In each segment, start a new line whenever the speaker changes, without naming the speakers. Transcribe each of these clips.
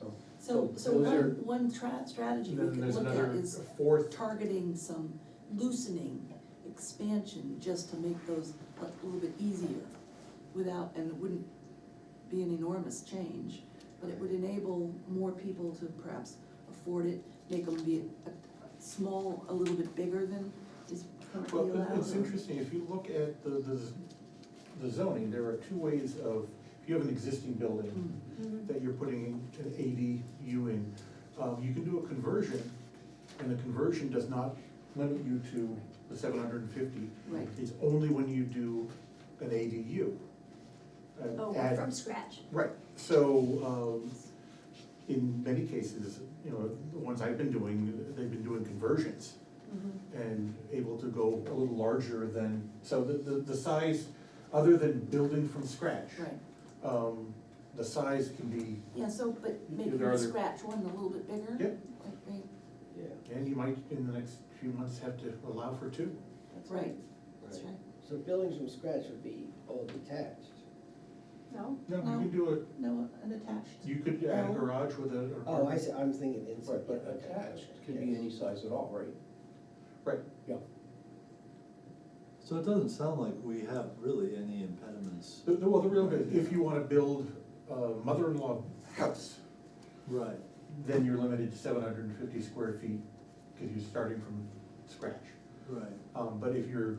So,
So
so
those are-
one, one tra- strategy
And
we
then
could
there's
look at
another
is
fourth,
targeting some loosening, expansion, just to make those a little bit easier without, and it wouldn't be an enormous change, but it would enable more people to perhaps afford it, make them be a, a small, a little bit bigger than is
well,
currently
it-
allowed.
it's
or-
interesting, if you look at the, the z- the zoning, there are two ways of, if you have an existing building
Hmm. Mm-hmm.
Mhm.
that you're putting an ADU in, um, you can do a conversion, and the conversion does not limit you to the seven hundred and fifty.
Right.
It's only when you do an ADU. an
Oh,
Uh, add-
from scratch.
Right, so, um, in many cases, you know, the ones I've been doing, they've been doing conversions and able to go a little larger than, so the, the, the size, other than building from scratch.
Right,
Um, the size can be,
yeah, so, but making
there
the
are the-
scratch one a little bit bigger.
Yep.
like, right,
Yeah.
and you might in the next few months have to allow for two.
That's right, that's
Right.
right.
So buildings from scratch would be all detached.
No?
No,
No.
you can do it,
No, unattached.
you could add a
No.
garage with a. an
Oh, I
apartment.
see, I'm thinking inside.
Right, but
yeah, okay,
attached
okay,
could be
yes.
any size at all, right?
Right,
Yeah.
So it doesn't sound like we have really any impediments.
The- the- well, the real, if you wanna build a mother-in-law house,
Right,
then you're limited to seven hundred and fifty square feet, because you're starting from scratch.
right.
Um, but if you're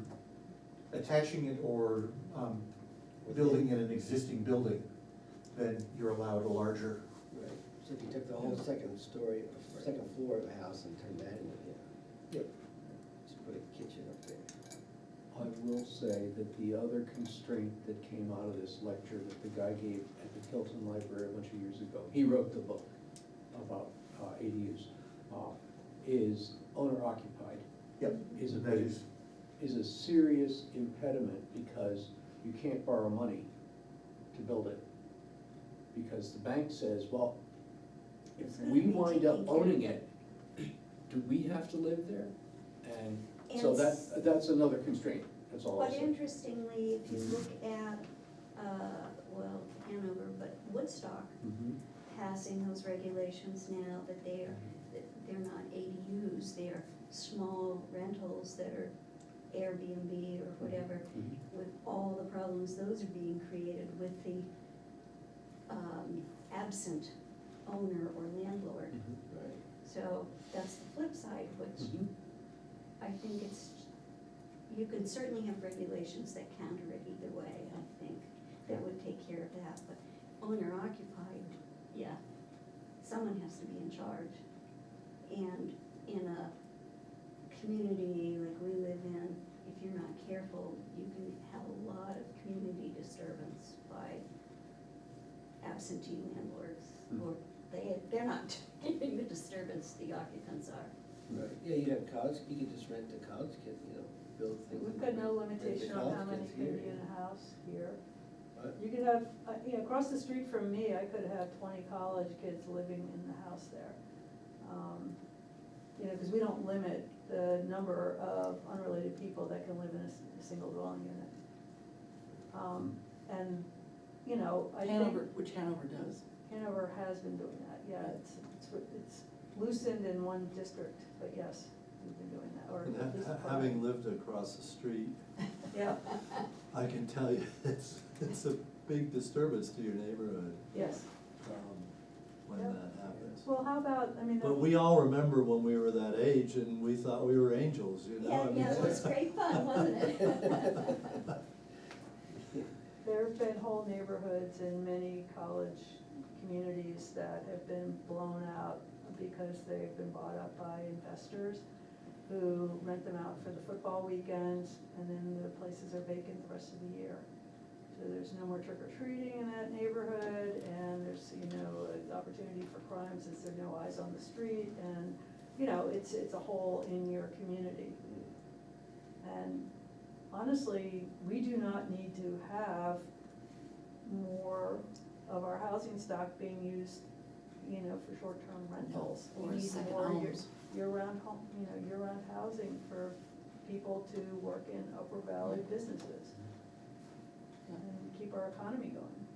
attaching it or, um, building in an existing building, then you're allowed a larger.
Right, so if you took the whole second story, second floor of a house and turned that into, yeah,
Yep.
just put a kitchen up there.
I will say that the other constraint that came out of this lecture that the guy gave at the Tilton Library a bunch of years ago, he wrote the book about uh, ADUs, uh, is owner occupied,
Yep.
is a
That
big,
is,
is a serious impediment because you can't borrow money to build it. Because the bank says, well, if
It's gonna
we
be
wind up
taken care of.
owning it, do we have to live there? And so
And
that,
s-
that's another constraint, that's all I'll
But
say.
interestingly, if you look at, uh, well, Hanover, but Woodstock
Mm-hmm.
Mhm.
passing those regulations now that they're, that they're not ADUs, they're small rentals that are Airbnb or whatever,
Mhm.
Mm-hmm.
with all the problems those are being created with the um, absent owner or landlord.
Mm-hmm.
Right.
So that's the flip side, which
Mhm.
I think it's, you can certainly have regulations that counter it either way, I think, that would take care of that, but owner occupied, yeah, someone has to be in charge. And in a community like we live in, if you're not careful, you can have a lot of community disturbance by absentee landlords, or they, they're not giving the disturbance the occupants are.
Right, yeah, you'd have college, you could just rent to college kids, you know, build things.
We've
and
got no
rent- rent to
limitation on how
college
many
kids
can
here.
be in a house here.
What?
You could have, uh, you know, across the street from me, I could have twenty college kids living in the house there. Um, You know, because we don't limit the number of unrelated people that can live in a, s- a single dwelling unit. Um, And, you know, I think.
Hanover, which Hanover does.
Hanover has been doing that, yeah, it's, it's, it's loosened in one district, but yes, we've been doing that, or.
And
at least
ha-
part.
Having lived across the street,
Yeah,
I can tell you, it's, it's a big disturbance to your neighborhood,
yes,
um, when
Yep.
that happens.
well, how about, I mean.
But we all remember when we were that age and we thought we were angels, you know?
Yeah,
I mean-
yeah, it was great fun, wasn't it?
There've been whole neighborhoods in many college communities that have been blown out because they've been bought up by investors who rent them out for the football weekends, and then the places are vacant the rest of the year. So there's no more trick or treating in that neighborhood, and there's, you know, an opportunity for crime since there are no eyes on the street, and, you know, it's, it's a hole in your community. And honestly, we do not need to have more of our housing stock being used, you know, for short-term rentals. We
Or
need
second
more year-
homes.
Year-round home, you know, year-round housing for people to work in Upper Valley businesses
Yeah.
and keep our economy going.